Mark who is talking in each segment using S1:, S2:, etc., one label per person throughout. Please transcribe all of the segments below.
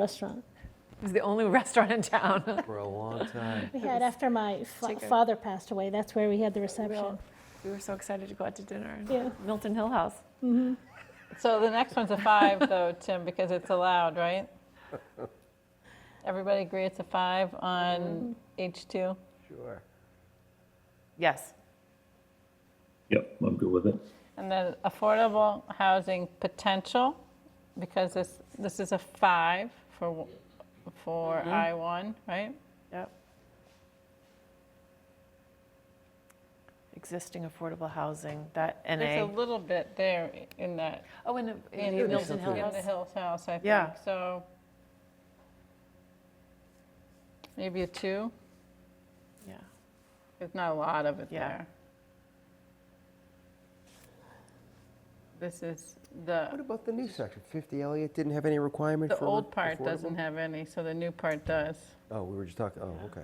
S1: restaurant
S2: It was the only restaurant in town.
S3: For a long time.
S1: we had after my fa-
S2: Chicken.
S1: father passed away. That's where we had the reception.
S2: Real- We were so excited to go out to dinner.
S1: Yeah.
S2: Milton Hill House.
S4: So the next one's a five, though, Tim, because it's allowed, right? Everybody agree it's a five on H2?
S3: Sure.
S2: Yes.
S5: Yep, I'm good with it.
S4: And then affordable housing potential, because this, this is a five for, for I1, right?
S2: Yep. Existing affordable housing, that
S4: There's
S2: NA.
S4: a little bit there in that,
S2: Oh, in the, in
S4: in
S2: the
S4: the
S2: Milton Hill
S4: in
S2: House.
S4: the Hills House, I
S2: Yeah.
S4: think, so. Maybe a two,
S2: Yeah.
S4: there's not a lot of it
S2: Yeah.
S4: there. This is the.
S3: What about the new section? 50 Elliott didn't have any requirement
S4: The
S3: for
S4: old part
S3: affordable?
S4: doesn't have any, so the new part does.
S3: Oh, we were just talking, oh, okay.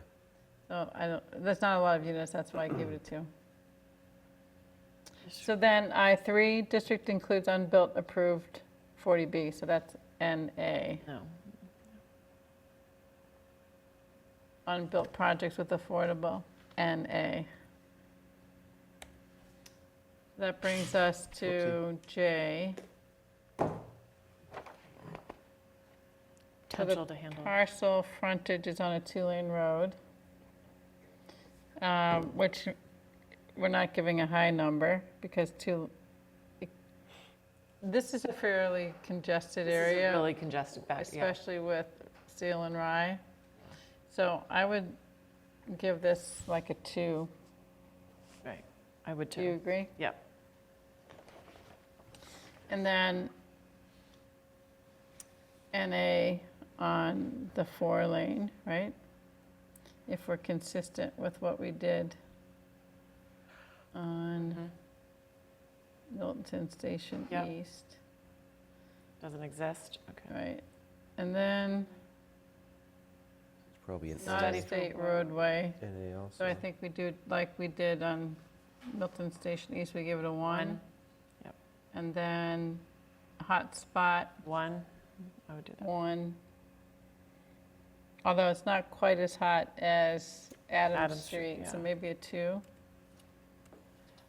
S4: So I don't, there's not a lot of units, that's why I gave it a two. So then I3, district includes unbuilt approved 40B, so that's NA.
S2: No.
S4: Unbuilt projects with affordable, NA. That brings us to J, the
S2: Potential to handle.
S4: parcel frontage is on a two-lane road, um, which we're not giving a high number because two, this is a fairly congested
S2: This is a
S4: area.
S2: Really congested back, yeah.
S4: especially with steel and rye. So I would give this like a two.
S2: Right. I would
S4: Do you
S2: too.
S4: agree?
S2: Yep.
S4: And then NA on the four lane, right? If we're consistent with what we did on Milton Station
S2: Mm-hmm. Yep.
S4: East,
S2: Doesn't exist. Okay.
S4: right? And then
S3: It's probably an
S4: not
S2: Study.
S4: a state roadway.
S3: NA also.
S4: So I think we do, like we did on Milton Station East, we give it a one.
S2: One. Yep.
S4: And then hotspot,
S2: One. I would do that.
S4: one. Although it's not quite as hot as
S2: Adam
S4: Adams
S2: Street,
S4: Street, so
S2: yeah.
S4: maybe a two.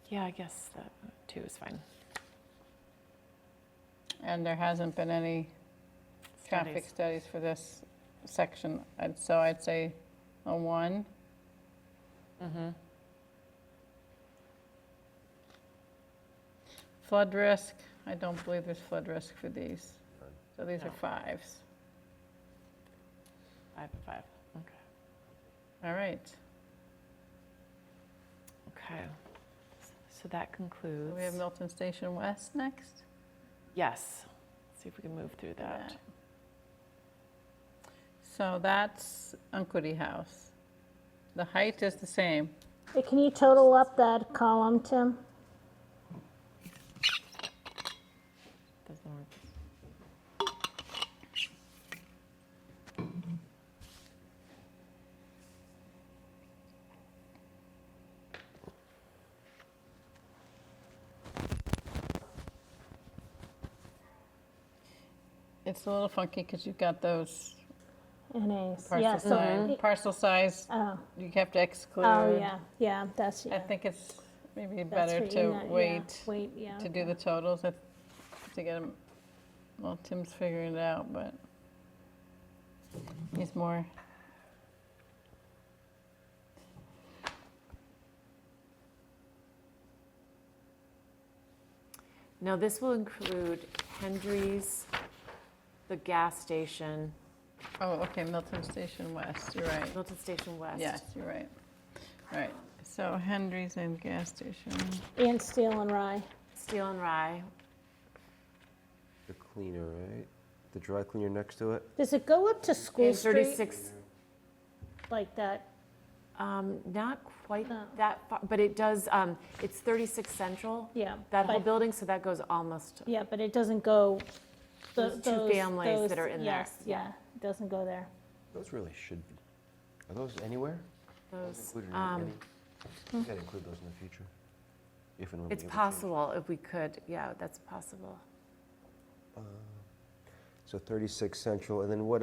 S2: Yeah, I guess that two is fine.
S4: And there hasn't been any traffic
S2: Studies.
S4: studies for this section, and so I'd say a one.
S2: Mm-hmm.
S4: Flood risk, I don't believe there's flood risk for these. So these
S2: No.
S4: are fives.
S2: Five and five. Okay.
S4: All right,
S2: Okay. So that
S4: so
S2: concludes.
S4: we have Milton Station West next?
S2: Yes. See if we can move through that.
S4: So that's Uncudy House. The height is the same.
S1: Hey, Can you total up that column, Tim?
S2: Doesn't work.
S4: It's a little funky because you've got those
S1: NAs. Yeah,
S4: parcel
S1: so,
S4: size, parcel size,
S1: oh,
S4: you have to exclude.
S1: oh, yeah, yeah, that's,
S4: I
S1: yeah.
S4: think it's maybe
S1: that's
S4: better
S1: for
S4: to
S1: internet, yeah,
S4: wait
S1: Wait, yeah.
S4: to do the totals, if- to get them, well, Tim's figuring it out, but he's more.
S2: Now, this will include Hendry's, the gas station,
S4: Oh, okay, Milton Station West, you're right.
S2: Milton Station West.
S4: Yes, you're right. Right, so Hendry's and gas station.
S1: And Steel and Rye.
S2: Steel and Rye.
S3: The cleaner, right? The dry cleaner next to it?
S1: Does it go up to School
S2: And
S1: Street
S2: 36,
S1: like that? Uh,
S2: um, not quite
S1: No.
S2: that far, but it does, um, it's 36 Central,
S1: Yeah.
S2: that whole
S1: but-
S2: building, so that goes almost,
S1: Yeah, but it doesn't go. tho-
S2: Those two
S1: those-
S2: families that
S1: those-
S2: are in there,
S1: Yes, yeah, it doesn't go there.
S3: Those really should be. Are those anywhere?
S2: those,
S3: Included in
S2: um,
S3: any? You gotta include those in the future. If and when we
S2: it's
S3: ever change.
S2: possible if we could, yeah, that's possible.
S3: So 36 Uh, Central, and then what